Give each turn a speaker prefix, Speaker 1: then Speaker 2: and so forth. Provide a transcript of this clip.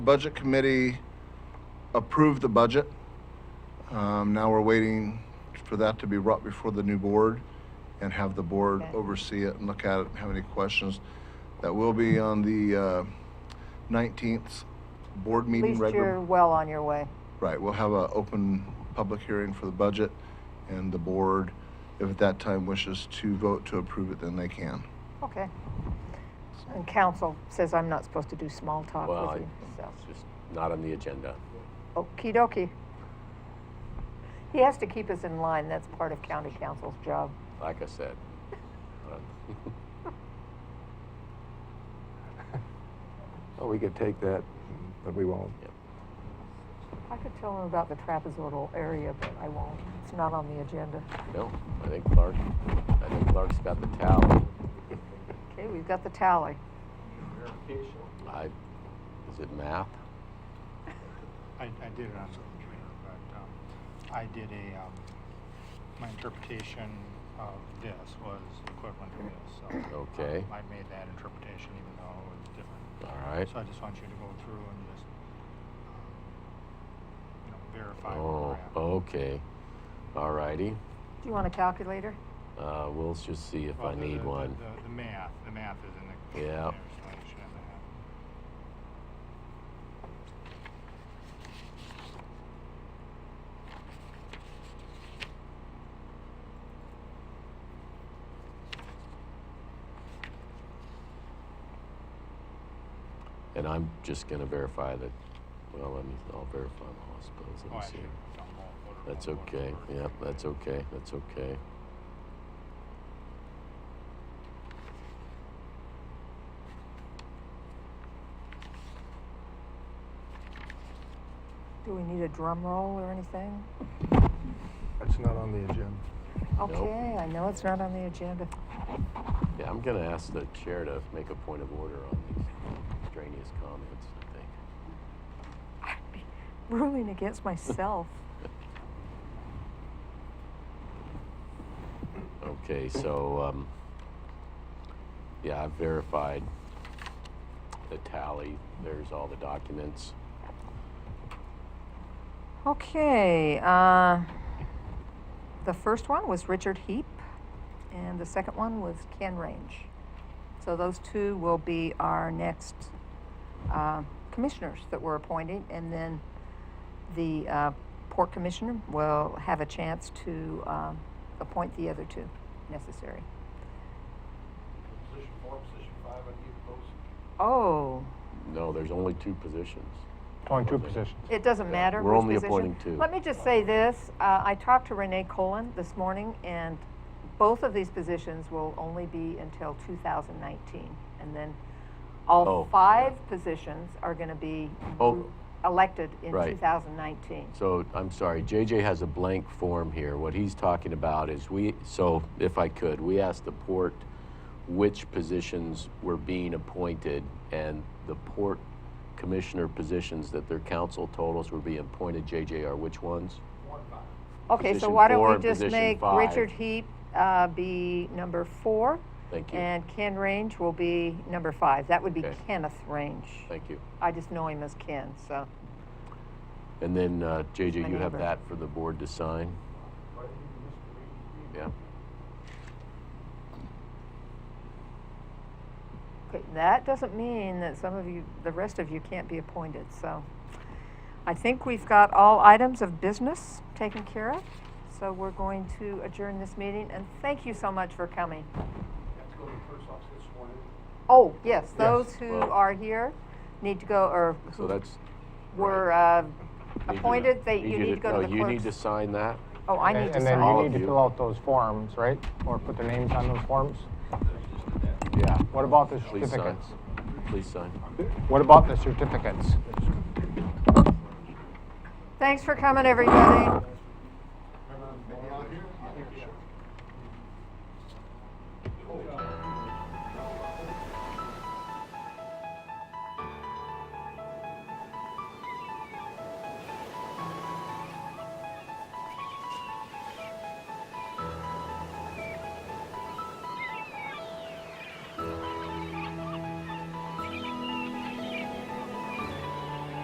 Speaker 1: Budget Committee approved the budget. Um, Now we're waiting for that to be brought before the new board and have the board
Speaker 2: Okay.
Speaker 1: oversee it and look at it and have any questions. That will be on the uh, nineteenth board
Speaker 2: At
Speaker 1: meeting.
Speaker 2: least
Speaker 1: regular-
Speaker 2: you're well on your way.
Speaker 1: Right, we'll have an open public hearing for the budget and the board, if at that time wishes to vote to approve it, then they can.
Speaker 2: Okay. And council says I'm not supposed to do small talk
Speaker 3: Well, I-
Speaker 2: with you, so.
Speaker 3: It's just not on the agenda.
Speaker 2: Okey dokey. He has to keep us in line. That's part of county council's job.
Speaker 3: Like I said, uh,
Speaker 4: Well, we could take that, but we won't.
Speaker 2: I could tell him about the trapezoidal area, but I won't. It's not on the agenda.
Speaker 3: no, I think Clark, I think Clark's got the tally.
Speaker 2: Okay, we've got the tally.
Speaker 3: I, is it math?
Speaker 5: I, I did it on the computer, but, um, I did a, um, my interpretation of this was equivalent to this, so. um,
Speaker 3: Okay.
Speaker 5: I made that interpretation even though it was different.
Speaker 3: All right.
Speaker 5: So I just want you to go through and just, um, you know, verify
Speaker 3: Oh,
Speaker 5: where we're at.
Speaker 3: okay. All righty.
Speaker 2: Do you want a calculator?
Speaker 3: Uh, we'll just see if
Speaker 5: Well,
Speaker 3: I
Speaker 5: the- the-
Speaker 3: need
Speaker 5: the-
Speaker 3: one.
Speaker 5: The, the math, the math is in the.
Speaker 3: Yeah.
Speaker 5: there's an explanation oh, of that.
Speaker 3: And I'm just gonna verify that, well, let me, I'll verify the hospitals.
Speaker 5: Oh,
Speaker 3: Let me
Speaker 5: actually,
Speaker 3: see.
Speaker 5: don't vote, vote it,
Speaker 3: That's
Speaker 5: don't vote it
Speaker 3: okay.
Speaker 5: first.
Speaker 3: Yep, that's okay. That's okay.
Speaker 2: Do we need a drum roll or anything?
Speaker 4: It's not on the agenda.
Speaker 2: Okay, I know it's not on the agenda.
Speaker 3: Yeah, I'm gonna ask the chair to make a point of order on these extraneous comments, I think.
Speaker 2: I'd be ruling against myself.
Speaker 3: Okay, so, um, yeah, I've verified the tally. There's all the documents.
Speaker 2: Okay, uh, the first one was Richard Heap, and the second one was Ken Range. So those two will be our next uh, commissioners that were appointed, and then the uh, port commissioner will have a chance to um, appoint the other two necessary.
Speaker 6: Position four, position five, I need those.
Speaker 2: Oh,
Speaker 3: No, there's only two positions.
Speaker 4: Only two positions.
Speaker 2: It doesn't matter.
Speaker 3: we're
Speaker 2: which
Speaker 3: only
Speaker 2: position.
Speaker 3: appointing two.
Speaker 2: Let me just say this, uh, I talked to Renee Colon this morning, and both of these positions will only be until 2019. And then
Speaker 3: Oh,
Speaker 2: all
Speaker 3: yeah.
Speaker 2: five positions are going to be
Speaker 3: Oh.
Speaker 2: elected in
Speaker 3: Right.
Speaker 2: 2019.
Speaker 3: So, I'm sorry, JJ has a blank form here. What he's talking about is we, so if I could, we asked the port which positions were being appointed and the port commissioner positions that their council told us were being appointed, JJ, are which ones?
Speaker 2: Okay, so
Speaker 3: position
Speaker 2: why
Speaker 3: four
Speaker 2: don't we
Speaker 3: and
Speaker 2: just
Speaker 3: position
Speaker 2: make
Speaker 3: five.
Speaker 2: Richard Heap uh, be number four,
Speaker 3: Thank you,
Speaker 2: and Ken Range will be number five. That would be
Speaker 3: Okay.
Speaker 2: Kenneth Range.
Speaker 3: thank you.
Speaker 2: I just know him as Ken, so.
Speaker 3: And then,
Speaker 2: My
Speaker 3: uh, JJ, you have
Speaker 2: neighbor.
Speaker 3: that for the board to sign? Yeah,
Speaker 2: Okay, that doesn't mean that some of you, the rest of you can't be appointed, so. I think we've got all items of business taken care of, so we're going to adjourn this meeting, and thank you so much for coming.
Speaker 6: Have to go to the first office this morning.
Speaker 2: Oh, yes, those who
Speaker 3: well-
Speaker 2: are here need to go, or
Speaker 3: so
Speaker 2: who
Speaker 3: that's.
Speaker 2: were uh,
Speaker 3: need you to-
Speaker 2: appointed, they, you need to go to the
Speaker 3: No, you need to
Speaker 2: clerk's.
Speaker 3: sign that.
Speaker 2: Oh, I need
Speaker 7: And
Speaker 2: to
Speaker 7: and then
Speaker 2: sign.
Speaker 7: you
Speaker 3: All
Speaker 7: need
Speaker 3: of
Speaker 7: to
Speaker 3: you.
Speaker 7: fill out those forms, right? Or put their names on those forms?
Speaker 3: Yeah,
Speaker 7: What about the
Speaker 3: please sign.
Speaker 7: certificates?
Speaker 3: Please sign.
Speaker 7: What about the certificates?
Speaker 2: Thanks for coming, everybody.